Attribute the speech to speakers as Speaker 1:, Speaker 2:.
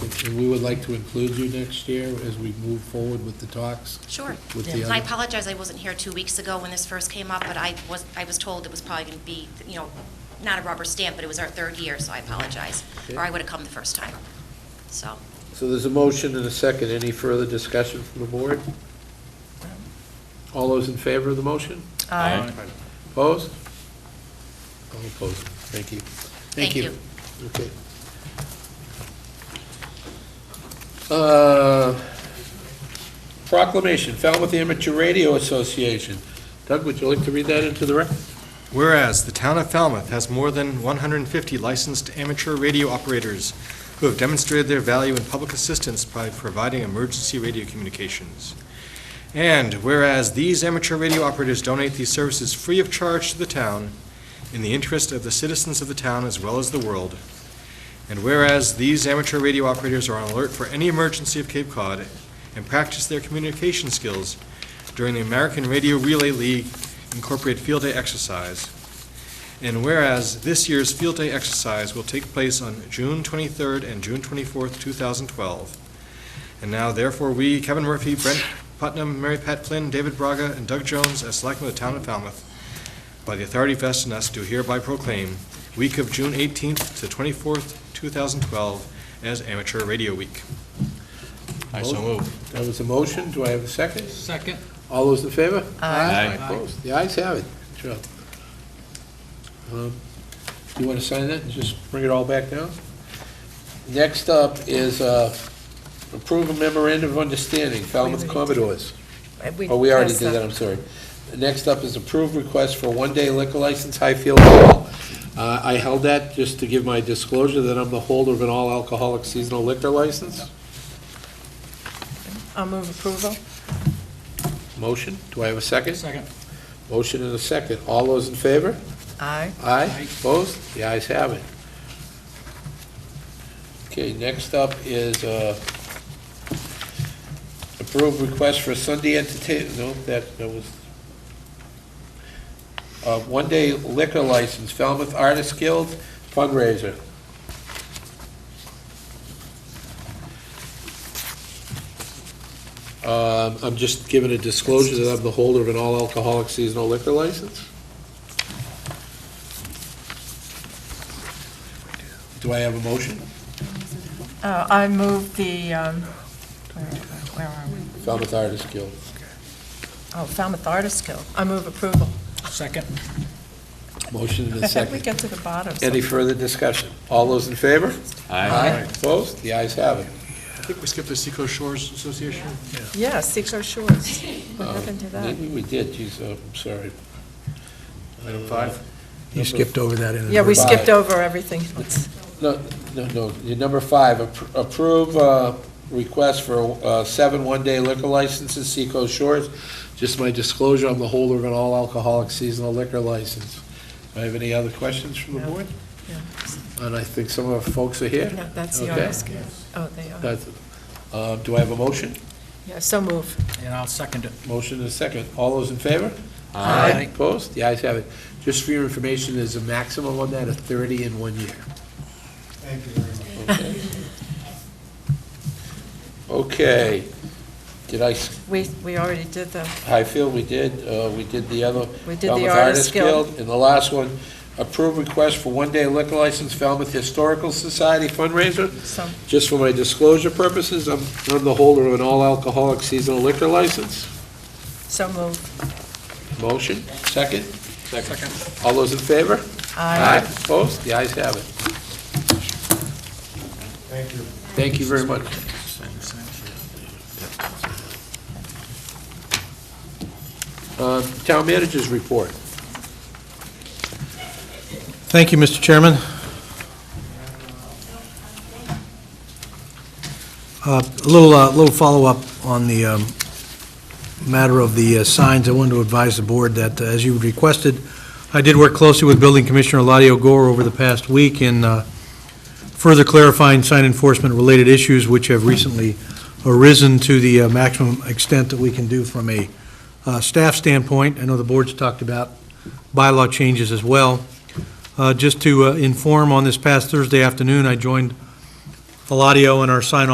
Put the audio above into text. Speaker 1: and we would like to include you next year as we move forward with the talks.
Speaker 2: Sure.
Speaker 1: With the
Speaker 2: And I
Speaker 1: other,
Speaker 2: apologize, I wasn't here two weeks ago when this first came up, but I was, I was told it was probably going to be, you know, not a rubber stamp, but it was our third year, so I apologize. Or I would have come the first time. So,
Speaker 1: so there's a motion and a second. Any further discussion from the board? All those in favor of the motion?
Speaker 3: Aye.
Speaker 1: Opposed? All opposed. Thank you.
Speaker 2: thank you.
Speaker 1: Okay. Uh, Proclamation, Falmouth Amateur Radio Association. Doug, would you like to read that into the record?
Speaker 4: Whereas the town of Falmouth has more than 150 licensed amateur radio operators who have demonstrated their value in public assistance by providing emergency radio communications. And whereas these amateur radio operators donate these services free of charge to the town in the interest of the citizens of the town as well as the world. And whereas these amateur radio operators are on alert for any emergency of Cape Cod and practice their communication skills during the American Radio Relay League incorporate field day exercise. And whereas this year's field day exercise will take place on June 23rd and June 24th, 2012. And now therefore, we, Kevin Murphy, Brent Putnam, Mary Pat Flynn, David Braga, and Doug Jones, as selectmen of the town of Falmouth, by the authority vested in us, do hereby proclaim week of June 18th to 24th, 2012, as Amateur Radio Week.
Speaker 3: I so move.
Speaker 1: That was a motion. Do I have a second?
Speaker 3: Second.
Speaker 1: All those in favor?
Speaker 3: Aye. Aye.
Speaker 1: Opposed? The ayes have it. Sure. Um, You want to sign that and just bring it all back down? Next up is uh, approve a memorandum of understanding, Falmouth Commodores. Oh, we already did that, I'm sorry. Next up is approved request for one-day liquor license, Highfield Hall. Uh, I held that just to give my disclosure that I'm the holder of an all-alcoholic seasonal liquor license.
Speaker 5: I'll move approval.
Speaker 1: Motion, do I have a second?
Speaker 3: Second.
Speaker 1: Motion and a second. All those in favor?
Speaker 5: Aye.
Speaker 1: Aye, opposed? The ayes have it. Okay, next up is uh, approved request for Sunday entertain, no, that, that was, uh, one-day liquor license, Falmouth Artists Guild fundraiser. Um, I'm just giving a disclosure that I'm the holder of an all-alcoholic seasonal liquor license. Do I have a motion?
Speaker 5: Uh, I move the, um, where where are we?
Speaker 1: Falmouth Artists Guild.
Speaker 5: Oh, Falmouth Artist Guild. I move approval.
Speaker 3: Second.
Speaker 1: Motion and a
Speaker 5: We
Speaker 1: second.
Speaker 5: get to the bottom.
Speaker 1: Any further discussion? All those in favor?
Speaker 3: Aye.
Speaker 1: Opposed? The ayes have it.
Speaker 4: I think we skipped the Seacoast Shores Association.
Speaker 5: Yeah, Seacoast Shores. What happened to that?
Speaker 1: Maybe we did, geez, oh, I'm sorry.
Speaker 4: Item five.
Speaker 6: You skipped over that in the...
Speaker 5: Yeah, we
Speaker 1: Five.
Speaker 5: skipped over everything else.
Speaker 1: No, no, no, Your number five, appro- approve uh, request for uh, seven one-day liquor licenses, Seacoast Shores. Just my disclosure, I'm the holder of an all-alcoholic seasonal liquor license. Do I have any other questions from the
Speaker 5: No.
Speaker 1: board?
Speaker 5: Yeah.
Speaker 1: And I think some of our folks are here.
Speaker 5: No, That's the
Speaker 1: Okay.
Speaker 5: Artist Guild. Oh, they are.
Speaker 1: That's- uh, Do I have a motion?
Speaker 5: Yeah, so move.
Speaker 3: And I'll second it.
Speaker 1: Motion and a second. All those in favor?
Speaker 3: Aye.
Speaker 1: Opposed? The ayes have it. Just for your information, there's a maximum on that of 30 in one year. Thank you Okay. Did I, s-
Speaker 5: We, we already did the,
Speaker 1: Highfield, we did, uh, we did the other.
Speaker 5: we did the
Speaker 1: Falmouth
Speaker 5: Artist Guild.
Speaker 1: And the last one, approve request for one-day liquor license, Falmouth Historical Society fundraiser.
Speaker 5: So,
Speaker 1: Just for my disclosure purposes, I'm I'm the holder of an all-alcoholic seasonal liquor license.
Speaker 5: so move.
Speaker 1: Motion, second.
Speaker 3: Second.
Speaker 1: All those in favor?
Speaker 5: Aye.
Speaker 1: Opposed? The ayes have it. Thank you. Thank you very much. Uh, Town managers report.
Speaker 6: Thank you, Mr. Chairman. Uh, A little, uh, little follow-up on the um, matter of the uh, signs. I wanted to advise the board that, uh, as you requested, I did work closely with Building Commissioner Eladio Gore over the past week in uh, further clarifying sign enforcement-related issues which have recently arisen to the uh, maximum extent that we can do from a uh, staff standpoint. I know the board's talked about bylaw changes as well. Uh, Just to uh, inform, on this past Thursday afternoon, I joined Eladio in our sign